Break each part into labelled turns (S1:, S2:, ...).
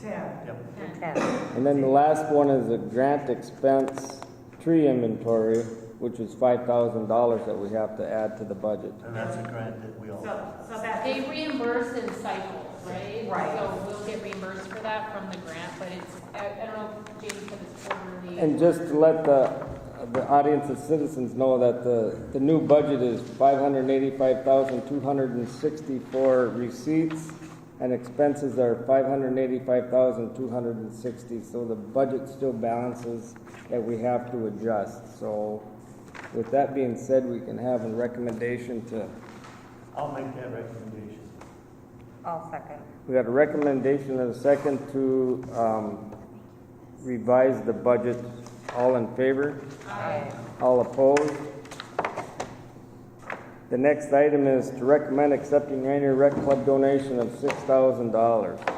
S1: Ten.
S2: Yep.
S3: ten.
S4: And then the last one is a grant expense tree inventory, which was five thousand dollars that we have to add to the budget.
S2: And that's a grant that we all,
S1: So, so that,
S5: They reimburse in cycles, right?
S1: Right.
S5: So we'll get reimbursed for that from the grant, but it's, I, I don't know, if Jamie said it's quarterly.
S4: And just to let the, the audience of citizens know that the, the new budget is five hundred eighty-five thousand, two hundred and sixty-four receipts, and expenses are five hundred eighty-five thousand, two hundred and sixty, so the budget still balances that we have to adjust. So with that being said, we can have a recommendation to
S2: I'll make that recommendation.
S3: I'll second.
S4: We got a recommendation and a second to um, revise the budget. All in favor? All opposed? The next item is to recommend accepting Rainier Rec Club donation of $6,000.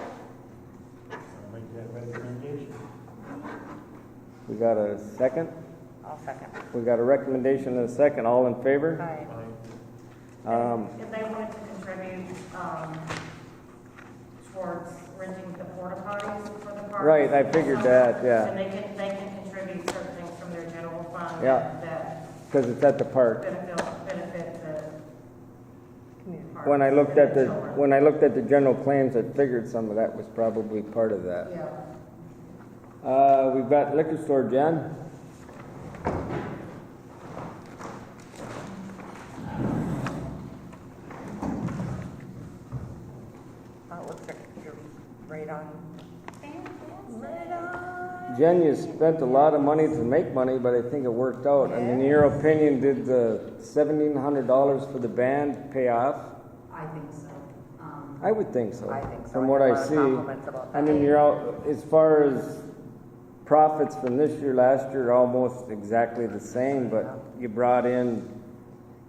S2: I'll make that recommendation.
S4: We got a second?
S3: I'll second.
S4: We got a recommendation and a second. All in favor?
S3: Aye.
S2: Aye.
S4: Um,
S1: if they wanted to contribute, um, towards renting the porta potties for the park.
S4: Right, I figured that, yeah.
S1: And they can, they can contribute certain things from their general fund.
S4: Yeah.
S1: That
S4: Because it's at the park.
S1: benefit, benefit the. park
S4: When I looked at the,
S1: and children.
S4: when I looked at the general claims, I figured some of that was probably part of that.
S1: Yeah.
S4: Uh, we've got liquor store, Jen.
S3: Oh, it looks like you're right on. Right on.
S4: Jen, you spent a lot of money to make money, but I think it worked out. I mean, in your opinion, did the seventeen hundred dollars for the band pay off?
S6: I think so. Um,
S4: I would think so.
S3: I think so.
S4: From what
S3: I
S4: I
S3: got a lot of
S4: see,
S3: compliments about
S4: I mean,
S3: that.
S4: you're out as far as profits from this year, last year, almost exactly the same. But you brought in,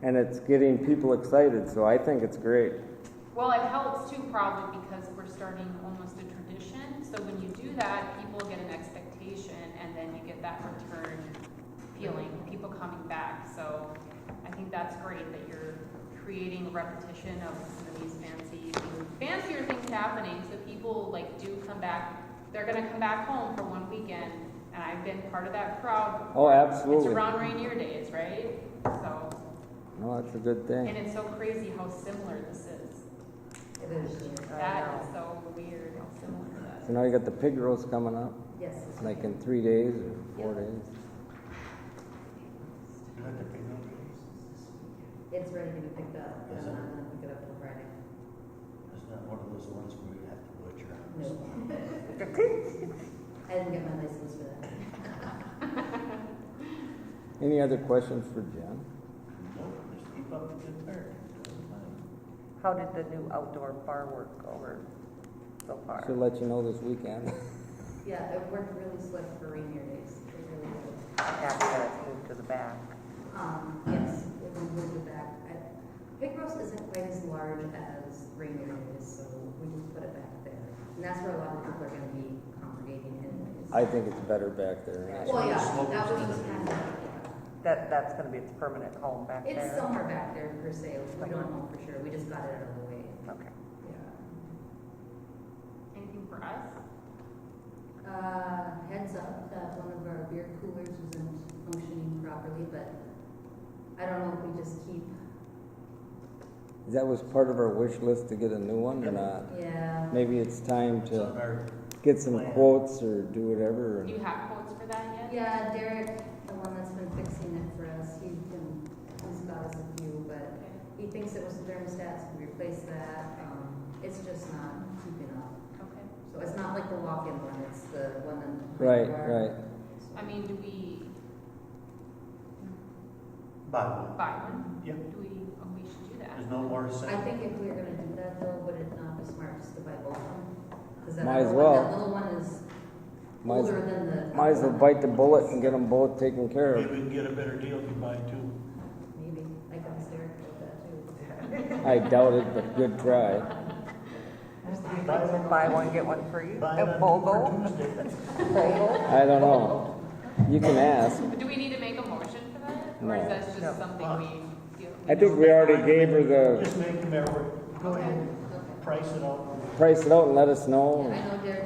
S4: and it's getting people excited. So I think it's great.
S5: Well, it helps too probably because we're starting almost a tradition. So when you do that, people get an expectation and then you get that return feeling, people coming back. So I think that's great that you're creating a repetition of some of these fancy, things- fancier things happening. So people like do come back, they're gonna come back home for one weekend. And I've been part of that crowd.
S4: Oh, absolutely.
S5: It's around Rainier Days, right? So,
S4: No, that's a good thing.
S5: and it's so crazy how similar this is.
S6: It is,
S5: That is so weird, how similar that
S4: So now you got the pig roast coming up,
S6: yes.
S4: like in three days or four days.
S2: You have to pay no raise.
S6: It's ready to be picked up.
S2: Yes,
S6: I'm
S2: sir.
S6: not gonna pick it up till Friday.
S2: It's not one of those ones where you have to butcher.
S6: No. I didn't get my license for that.
S4: Any other questions for Jen?
S2: No, just keep up the good work. Doing fine.
S3: How did the new outdoor bar work over so far?
S4: She'll let you know this weekend.
S6: Yeah, it worked really slick for Rainier Days. It really did.
S3: After that it's moved to the back.
S6: Um, yes, it was moved back. I- Big Rose isn't quite as large as Rainier Days, so we just put it back there. And that's where a lot of people are gonna be congregating anyways.
S4: I think it's better back there.
S6: Well, yeah,
S2: Smoke
S6: that was
S2: is
S6: just
S2: gonna
S6: kind
S2: be-
S6: of,
S3: That, that's gonna be its permanent home back there?
S6: it's somewhere back there per se. We don't know for sure. We just got it out of the way.
S3: Okay.
S6: Yeah.
S5: is. Anything for us?
S6: Uh, heads up that one of our beer coolers isn't functioning properly, but I don't know if we just keep,
S4: That was part of our wish list to get a new one or not?
S6: yeah.
S4: Maybe it's time
S2: It's on
S4: to
S2: our-
S4: get some quotes or do whatever.
S5: Do
S4: and-
S5: you have quotes for that yet?
S6: Yeah, Derek, the one that's been fixing it for us, he's been, he's got us a few, but
S5: Okay.
S6: he thinks it was the thermostats, we replaced that, um, it's just not keeping up.
S5: Okay.
S6: So it's not like the walk-in one, it's the one in.
S4: Right, right.
S5: I mean, do we
S2: Buy one.
S5: buy one?
S2: Yep,
S5: Do we, oh, we should do that.
S2: there's no more to
S6: I
S2: say.
S6: think if we were gonna do that though, would it not be smart just to buy both of them? 'Cause that
S4: Might as
S6: other one-
S4: well.
S6: That little one is
S4: Might as-
S6: older than the.
S4: Might as well bite the bullet and get them both taken care
S2: Maybe
S4: of.
S2: we can get a better deal if you buy two.
S6: Maybe, I got hysterical with that too.
S4: I doubt it, but good try.
S2: Buy one.
S3: Buy one, get one free?
S2: Buy
S3: At
S2: one
S3: Bogle?
S2: for Tuesday.
S3: Bogle?
S4: I don't know. You can ask.
S5: But do we need to make a motion for that? Or
S4: No.
S5: is that
S3: No.
S5: just something we deal?
S4: I think we already gave her the,
S2: Just make them everywhere. Go ahead, and price it out.
S4: price it out and let us know.
S6: I know Derek